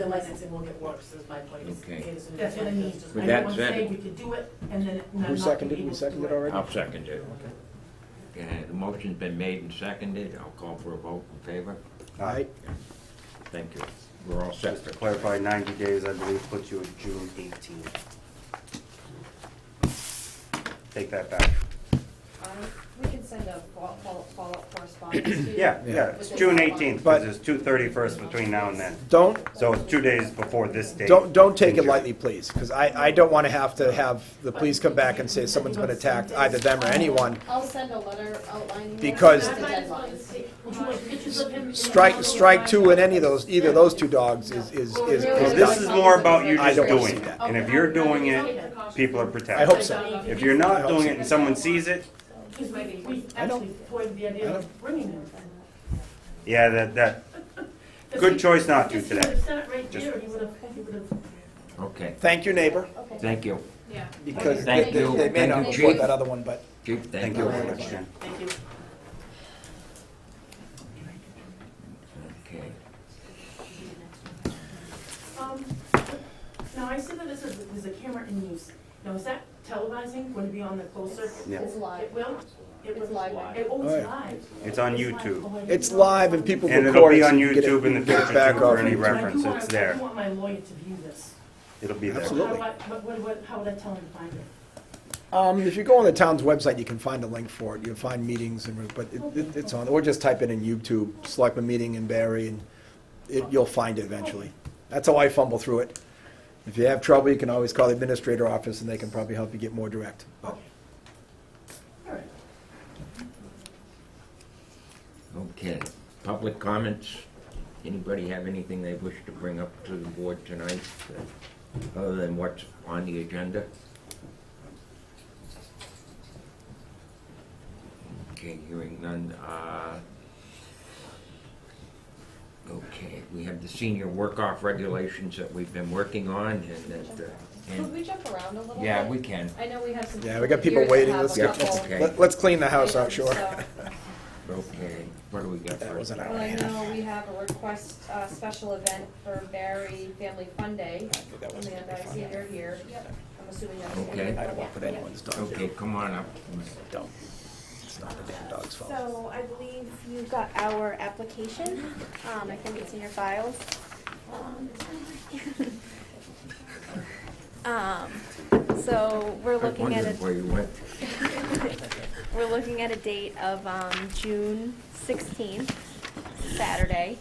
the licensing will get worse, is my point. is- Okay. is- is- That's what I mean. is- But I that- don't want to that- say we could do it and then not Who not seconded, be we able to do seconded it. already? I'll second it. Okay, the motion's been made and seconded. I'll call for a vote in favor. Aye. Thank you. We're all set. Just to clarify, 90 days, I believe, puts you at June 18th. Take that back. Um, We can send a fo- fo- follow-up correspondence to you. Yeah, yeah, it's June 18th, because there's two 31st between now and then. Don't, So it's two days before this date. don't, don't take it in June. lightly, please, because I, I don't want to have to have the police come back and say someone's been attacked, either them or anyone. I'll send a letter outlining. what Because- the deadline is. Would you like pictures of him? in the Strike, yellow strike and two white? in any of those, either of those two dogs is, is, is. Well, this is more about you I just don't wanna doing see it. that. And if you're doing it, people are I protected. hope so. If you're I not hope doing so. it and someone sees it, Because we, we I don't- actually toyed with the idea of bringing him. yeah, that, that, Because good he- choice not to because He would today. have sat right Just- there, he would have, he would have Okay, Thank you, neighbor, Okay. thank you. because they, Thank they- you. they may not Thank you, report Chief. that other one, but Chief, thank Thank you you. very much, Jen. Thank you. Okay. Um, Now, I see that this is, there's a camera in use. Now, is that televising going to be on the closed circuit? Yeah. It's live. It will? It It's was live. It, oh, it's Alright. live. It's on It's live. YouTube. Oh, I didn't it's know. live and people record And it. it'll be so on you can get YouTube in the you can get future back too for off. any But I do reference, want- it's I there. do want my lawyer to view this. It'll be there. Absolutely. How do I, what, what- what, how would I tell him to find it? Um, if you go on the town's website, you can find a link for it, you'll find meetings and, but it, it- it's on, or just type it in YouTube, selectman meeting in Barry, and it, you'll find it eventually. That's how I fumble through it. If you have trouble, you can always call the administrator office, and they can probably help you get more direct. All right. Okay, public comments? Anybody have anything they wish to bring up to the board tonight, uh, other than what's on the agenda? Okay, hearing none. uh, Okay, we have the senior work-off regulations that we've been working on, and that, uh, Could and, we jump around a little bit? yeah, we can, I know we have some. Yeah, we got people here that waiting, have let's, a get- couple okay. let's, let's clean the house out, items, sure. so- okay, what do we got That first? wasn't Well, our I hand. know we have a request, uh, special event for Barry Family Fun Day. that was Amanda, I see you're here. Yep. I'm assuming that's. Okay. I don't want to put anyone's dog Okay, down. come on up. Don't. It's not the damn dog's fault. So I believe you got our application. Um, I think it's in your files. Um, so we're I looking at wondered where a, you went. we're looking at a date of, um, June sixteenth, Saturday.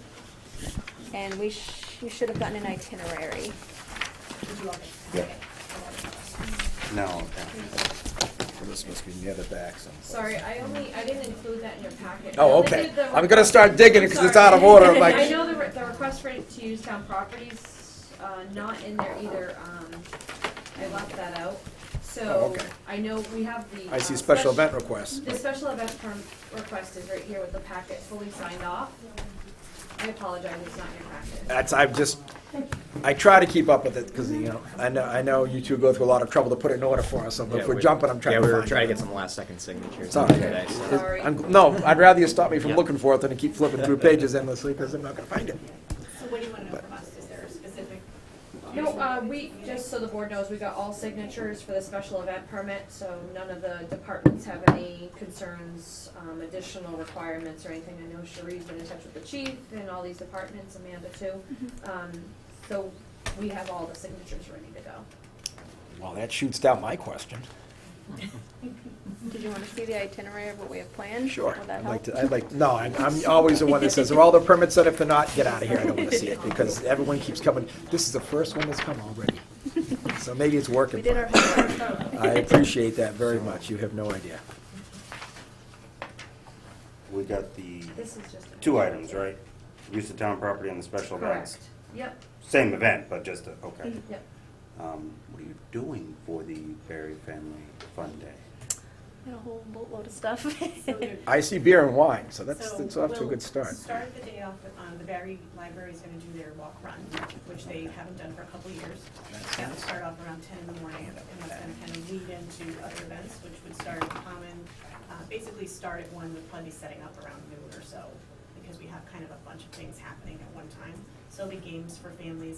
And we sh- you should have gotten an itinerary. Yeah. No, okay. This must be near the back someplace. Sorry, I only, I didn't include that in your packet. I Oh, only okay. did the- I'm gonna start digging it, because it's out of Sorry. order, I'm I like, know the, re- the request for it to use town properties, uh, not in there either, um, I left that out. Oh, So, okay. I know we have the. I see uh, special spec- event requests. The special event perm request is right here with the packet fully signed off. I apologize, it's not in your packet. That's, I've just, I try to keep up with it, because, you know, I know, I know you two go through a lot of trouble to put it in order for us, so if we're jumping, I'm trying to Yeah, we were find trying to it. get some last second signatures. It's all right. today, so- Sorry. I'm- No, I'd rather you stop me from looking for it than to keep flipping through pages endlessly, because I'm not gonna find it. So what do you want to know from us? Is there a specific? No, uh, we, just so the board knows, we got all signatures for the special event permit, so none of the departments have any concerns, um, additional requirements or anything. I know Cherie's been in touch with the chief and all these departments, Amanda too. Mm-hmm. Um, so we have all the signatures ready to go. Well, that shoots down my question. Did you wanna see the itinerary of what we have planned? Sure, Will that I'd like help? to, I'd like, no, I'm, I'm always the one that says, are all the permits set? If they're not, get out of here, I don't wanna see it, because everyone keeps coming, this is the first one that's come already. So maybe it's working We for did our me. homework. I appreciate that very much, you have no idea. We got the This is just. two items, right? Use of town property and the special events. Correct. Mm-hmm. Yep, Same event, but just, a- okay. yep. Um, What are you doing for the Berry Family Fun Day? Got a whole boatload of stuff. So there- I see beer and wine, so that's, so that's off to a we'll good start. Start the day off, with, um, the Barry Library's gonna do their walk run, which they haven't done for a couple of years. That will start off around ten in the morning, and that's gonna kind of lead into other events, which would start at Common, uh, basically start at one with Plenty setting up around noon or so, because we have kind of a bunch of things happening at one time. So there'll be games for families